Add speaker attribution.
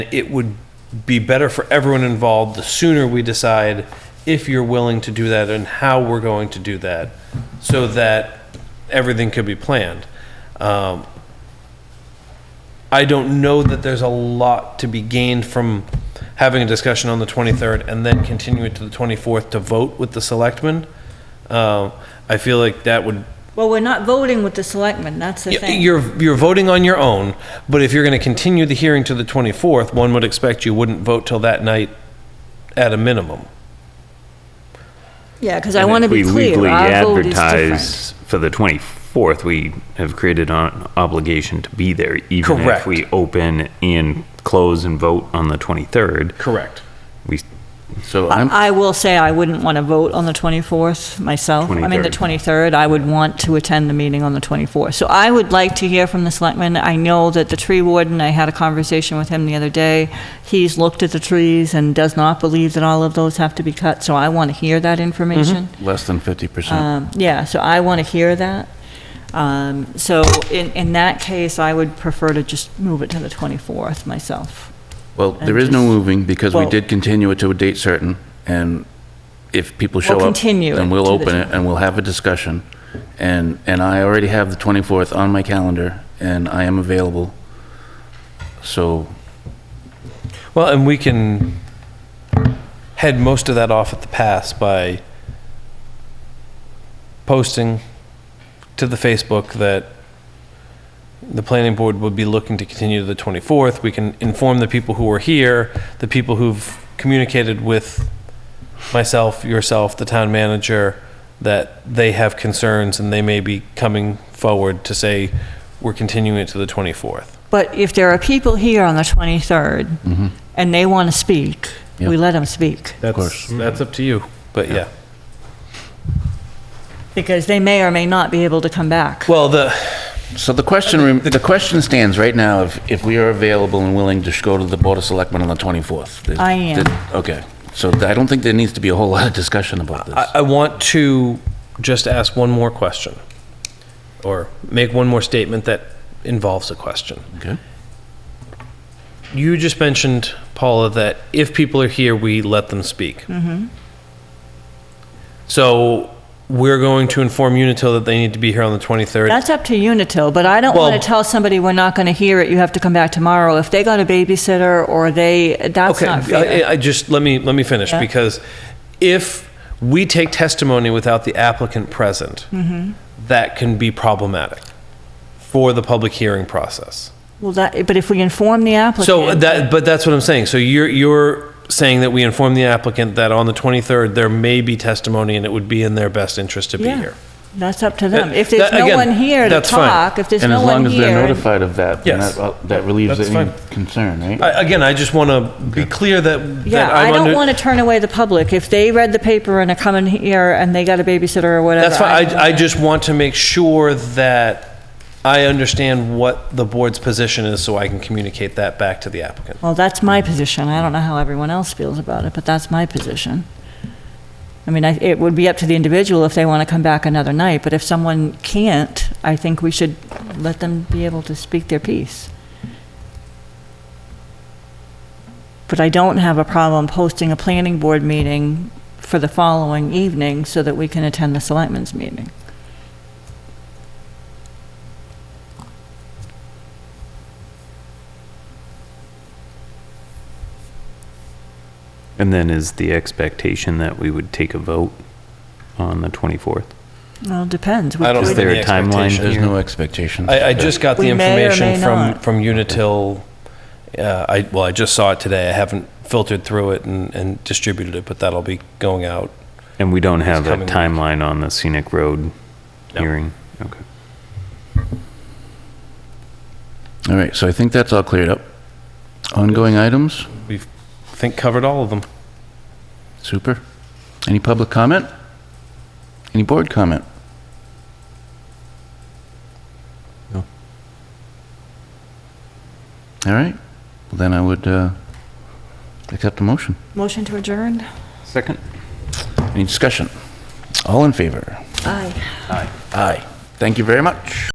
Speaker 1: it would be better for everyone involved the sooner we decide if you're willing to do that and how we're going to do that so that everything could be planned. Um, I don't know that there's a lot to be gained from having a discussion on the 23rd and then continue it to the 24th to vote with the selectmen. Um, I feel like that would
Speaker 2: Well, we're not voting with the selectmen, that's the
Speaker 1: Y-
Speaker 2: thing.
Speaker 1: You're, you're voting on your own, but if you're going to continue the hearing to the 24th, one would expect you wouldn't vote till that night at a minimum.
Speaker 2: Yeah, because I
Speaker 3: And
Speaker 2: want to
Speaker 3: if
Speaker 2: be
Speaker 3: we
Speaker 2: clear,
Speaker 3: legally
Speaker 2: our vote is different.
Speaker 3: advertise For the 24th, we have created an obligation to be there, even
Speaker 1: Correct.
Speaker 3: if we open and close and vote on the 23rd.
Speaker 1: Correct.
Speaker 3: We,
Speaker 4: So I'm,
Speaker 2: I will say I wouldn't want to vote on the 24th myself. I mean, the 23rd, I would want to attend the meeting on the 24th. So I would like to hear from the selectmen. I know that the tree warden, I had a conversation with him the other day. He's looked at the trees and does not believe that all of those have to be cut, so I want to hear that information.
Speaker 4: less than 50%.
Speaker 2: Um, Yeah, so I want to hear that. Um, So in, in that case, I would prefer to just move it to the 24th myself.
Speaker 4: Well, there is no
Speaker 2: just-
Speaker 4: moving because we
Speaker 2: Well-
Speaker 4: did continue it to a date certain, and if people show up.
Speaker 2: continue
Speaker 4: Then
Speaker 2: it
Speaker 4: we'll
Speaker 2: to the
Speaker 4: open it and we'll have a discussion. And, and I already have the 24th on my calendar, and I am available. So,
Speaker 1: Well, and we can head most of that off at the pass by posting to the Facebook that the planning board would be looking to continue to the 24th. We can inform the people who are here, the people who've communicated with myself, yourself, the town manager, that they have concerns and they may be coming forward to say, we're continuing it to the 24th.
Speaker 2: But if there are people here on the
Speaker 1: Mm-hmm.
Speaker 2: 23rd and they want to speak, we
Speaker 4: Yeah.
Speaker 2: let them speak.
Speaker 1: Of
Speaker 4: course.
Speaker 1: That's up to you, but yeah.
Speaker 2: Because they may or may not be able to come back.
Speaker 1: Well, the,
Speaker 4: so the question, rem- the question stands right now, if, if we are available and willing to sh- go to the Board of Selectmen on the 24th. There's-
Speaker 2: I am.
Speaker 4: there- Okay, so I don't think there needs to be a whole lot of discussion about this.
Speaker 1: I, I want to just ask one more question or make one more statement that involves a question.
Speaker 4: Okay.
Speaker 1: You just mentioned, Paula, that if people are here, we let them speak. Mm-hmm. So we're going to inform Unitil that they need to be here on the 23rd.
Speaker 2: That's up to Unitil, but I don't
Speaker 1: Well-
Speaker 2: want to tell somebody we're not going to hear it, you have to come back tomorrow. If they got a babysitter or they, that's
Speaker 1: okay, uh,
Speaker 2: not fair.
Speaker 1: I, I just let me let me finish
Speaker 2: Yeah.
Speaker 1: because if we take testimony without the applicant present,
Speaker 2: Mm-hmm.
Speaker 1: that can be problematic for the public hearing process.
Speaker 2: Well, that, but if we inform the applicant.
Speaker 1: So that, but that's what I'm saying. So you're, you're saying that we inform the applicant that on the 23rd, there may be testimony and it would be in their best interest to be
Speaker 2: Yeah.
Speaker 1: here.
Speaker 2: That's up to them.
Speaker 1: That-
Speaker 2: If there's
Speaker 1: Uh, that-
Speaker 2: no
Speaker 1: again,
Speaker 2: one here to
Speaker 1: that's fine.
Speaker 2: talk, if there's
Speaker 4: And
Speaker 2: no
Speaker 4: as
Speaker 2: one
Speaker 4: long as they're
Speaker 2: here,
Speaker 4: notified of that, then
Speaker 1: Yes.
Speaker 4: that, uh, that relieves
Speaker 1: That's
Speaker 4: any
Speaker 1: fine.
Speaker 4: concern, right?
Speaker 1: I, again, I just want to be clear that, that
Speaker 2: yeah, I
Speaker 1: I'm
Speaker 2: don't want
Speaker 1: under.
Speaker 2: to turn away the public. If they read the paper and are coming here and they got a babysitter or whatever.
Speaker 1: That's fine.
Speaker 2: don't
Speaker 1: I, I
Speaker 2: know.
Speaker 1: just want to make sure that I understand what the board's position is so I can communicate that back to the applicant.
Speaker 2: Well, that's my position. I don't know how everyone else feels about it, but that's my position. I mean, I- it would be up to the individual if they want to come back another night, but if someone can't, I think we should let them be able to speak their piece. But I don't have a problem posting a planning board meeting for the following evening so that we can attend the selectmen's meeting.
Speaker 3: and then is the expectation that we would take a vote on the 24th?
Speaker 2: Well, it depends. We
Speaker 1: I don't
Speaker 2: could-
Speaker 3: Is
Speaker 1: think
Speaker 3: there
Speaker 1: the
Speaker 3: a timeline
Speaker 1: expectation
Speaker 4: There's
Speaker 3: here?
Speaker 4: no expectation.
Speaker 1: I, I just got the
Speaker 2: We may or
Speaker 1: information
Speaker 2: may
Speaker 1: from,
Speaker 2: not.
Speaker 1: from Unitil. Uh, I, well, I just saw it today. I haven't filtered through it and, and distributed it, but that'll be going out.
Speaker 3: And we don't have a
Speaker 1: coming week.
Speaker 3: timeline on the scenic road
Speaker 1: No.
Speaker 3: hearing? Okay.
Speaker 4: All right, so I think that's all cleared up. Ongoing items,
Speaker 1: We've, I think, covered all of them.
Speaker 4: super. Any public comment? Any board comment?
Speaker 3: No.
Speaker 4: All right, Well, then I would uh, accept a motion.
Speaker 2: Motion to adjourn?
Speaker 3: Second?
Speaker 4: Any discussion? All in favor?
Speaker 2: Aye.
Speaker 4: Aye. Thank you very much.